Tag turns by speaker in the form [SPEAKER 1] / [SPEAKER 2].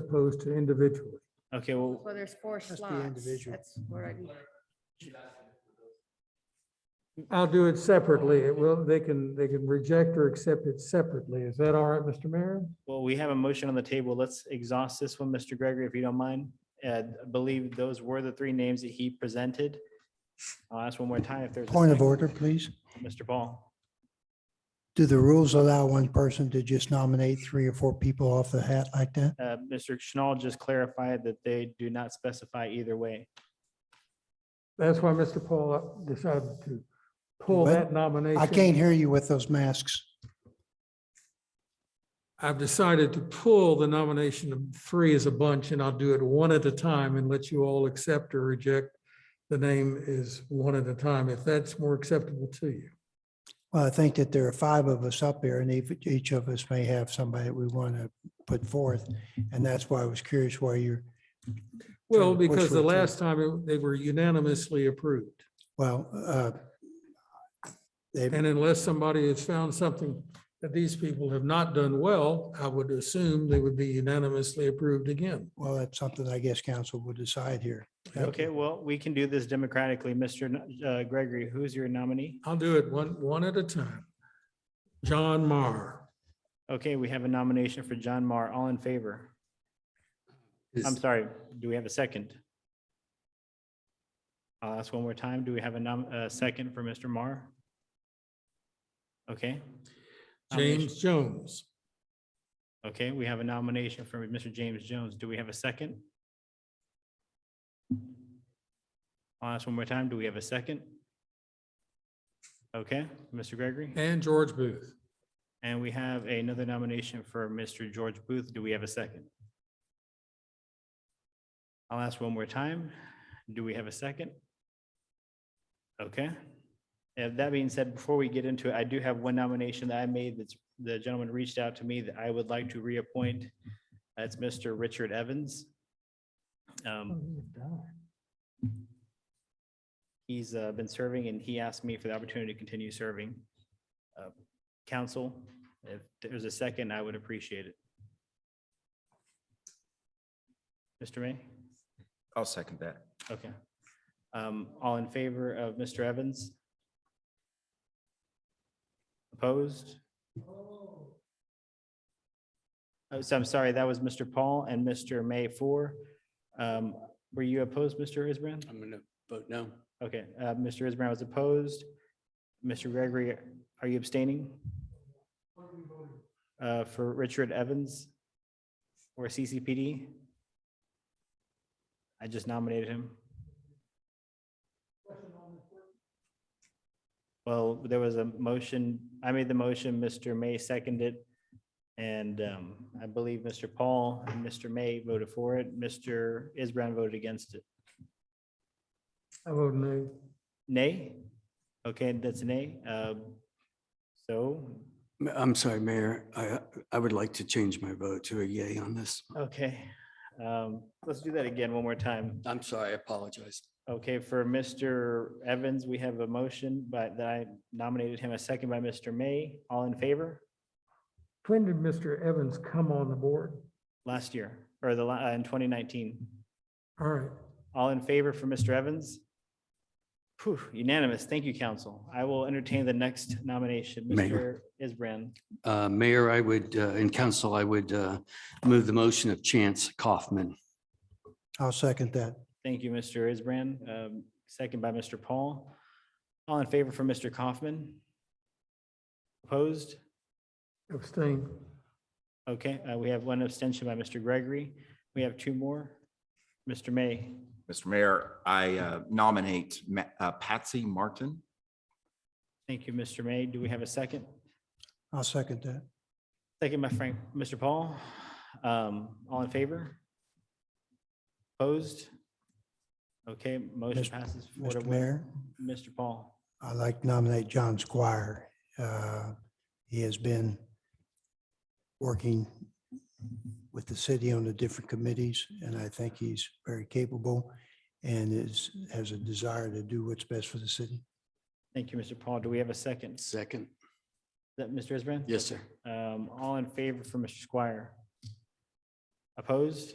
[SPEAKER 1] opposed to individually.
[SPEAKER 2] Okay, well,
[SPEAKER 3] Well, there's four
[SPEAKER 1] be
[SPEAKER 3] slots.
[SPEAKER 1] individual.
[SPEAKER 3] That's where I,
[SPEAKER 1] I'll do it separately. It will, they can, they can reject or accept it separately. Is that all right, Mr. Mayor?
[SPEAKER 2] well, we have a motion on the table. Let's exhaust this one, Mr. Gregory, if you don't mind. Uh, I believe those were the three names that he presented. I'll ask one more time if there's. a
[SPEAKER 4] Point of
[SPEAKER 2] second.
[SPEAKER 4] order, please.
[SPEAKER 2] Mr. Paul.
[SPEAKER 4] Do the rules allow one person to just nominate three or four people off the hat like that?
[SPEAKER 2] Uh, Mr. Schnall just clarified that they do not specify either way.
[SPEAKER 1] That's why Mr. Paul decided to pull
[SPEAKER 4] What?
[SPEAKER 1] that nomination.
[SPEAKER 4] I can't hear you with those masks.
[SPEAKER 1] I've decided to pull the nomination of three as a bunch, and I'll do it one at a time and let you all accept or reject. The name is one at a time, if that's more acceptable to you.
[SPEAKER 4] Well, I think that there are five of us up here and each, each of us may have somebody that we want to put forth. And that's why I was curious why you're,
[SPEAKER 1] Well,
[SPEAKER 4] Trying to push
[SPEAKER 1] because
[SPEAKER 4] for
[SPEAKER 1] the
[SPEAKER 4] it, too.
[SPEAKER 1] last time it- they were unanimously approved.
[SPEAKER 4] well, uh, they,
[SPEAKER 1] And unless somebody has found something that these people have not done well, I would assume they would be unanimously approved again.
[SPEAKER 4] well, that's something I guess council will decide here. Thank
[SPEAKER 2] Okay,
[SPEAKER 4] you.
[SPEAKER 2] well, we can do this democratically. Mr. N- uh, Gregory, who's your nominee?
[SPEAKER 1] I'll do it one, one at a time. John Marr,
[SPEAKER 2] Okay, we have a nomination for John Marr. All in favor? I'm
[SPEAKER 5] Is,
[SPEAKER 2] sorry, do we have a second? I'll ask one more time. Do we have a nom, a second for Mr. Marr? Okay. Nomination-
[SPEAKER 1] James Jones,
[SPEAKER 2] Okay, we have a nomination for Mr. James Jones. Do we have a second? I'll ask one more time. Do we have a second? Okay, Mr. Gregory?
[SPEAKER 1] and George Booth.
[SPEAKER 2] And we have another nomination for Mr. George Booth. Do we have a second? I'll ask one more time. Do we have a second? Okay. And that being said, before we get into it, I do have one nomination that I made that's, the gentleman reached out to me that I would like to reappoint. That's Mr. Richard Evans. Um, He's uh, been serving and he asked me for the opportunity to continue serving. Uh, Council, if there's a second, I would appreciate it. Mr. May?
[SPEAKER 5] I'll second that.
[SPEAKER 2] Okay. Um, All in favor of Mr. Evans? Opposed? Oh, So I'm sorry, that was Mr. Paul and Mr. May for. Um, Were you opposed, Mr. Isbrand?
[SPEAKER 5] I'm gonna vote no.
[SPEAKER 2] Okay, uh, Mr. Isbrand was opposed. Mr. Gregory, are you abstaining? Uh, For Richard Evans or CCPD? I just nominated him. Well, there was a motion, I made the motion, Mr. May seconded. it, And um, I believe Mr. Paul and Mr. May voted for it. Mr. Isbrand voted against it.
[SPEAKER 1] I vote no.
[SPEAKER 2] Nay? Okay, that's a nay. Uh, So,
[SPEAKER 6] Ma- I'm sorry, Mayor. I, I would like to change my vote to a yay on this.
[SPEAKER 2] okay, um, let's do that again one more time.
[SPEAKER 6] I'm sorry, I apologize.
[SPEAKER 2] Okay, for Mr. Evans, we have a motion, but that I nominated him a second by Mr. May. All in favor?
[SPEAKER 1] When did Mr. Evans come on the board?
[SPEAKER 2] Last year, or the, la- uh, in 2019.
[SPEAKER 1] All right,
[SPEAKER 2] All in favor for Mr. Evans? Phew, Unanimous. Thank you, council. I will entertain the next nomination, Mr.
[SPEAKER 6] Mayor.
[SPEAKER 2] Isbrand.
[SPEAKER 6] Uh, Mayor, I would, uh, and council, I would, uh, move the motion of Chance Kaufman.
[SPEAKER 4] I'll second that.
[SPEAKER 2] Thank you, Mr. Isbrand. Um, Second by Mr. Paul. All in favor for Mr. Kaufman? Opposed?
[SPEAKER 1] abstain.
[SPEAKER 2] Okay, uh, we have one abstention by Mr. Gregory. We have two more. Mr. May,
[SPEAKER 5] Mr. Mayor, I uh, nominate Ma- uh, Patsy Martin.
[SPEAKER 2] thank you, Mr. May. Do we have a second?
[SPEAKER 4] I'll second that.
[SPEAKER 2] Second by Frank, Mr. Paul. Um, All in favor? Opposed? Okay, motion
[SPEAKER 4] Mr.
[SPEAKER 2] passes. four to
[SPEAKER 4] Mr.
[SPEAKER 2] one.
[SPEAKER 4] Mayor?
[SPEAKER 2] Mr. Paul.
[SPEAKER 4] I'd like to nominate John Squire. Uh, He has been working with the city on the different committees, and I think he's very capable and is, has a desire to do what's best for the city.
[SPEAKER 2] Thank you, Mr. Paul. Do we have a second? Is
[SPEAKER 6] Second.
[SPEAKER 2] that Mr. Isbrand?
[SPEAKER 6] Yes, sir.
[SPEAKER 2] Um, all in favor for Mr. Squire? Opposed?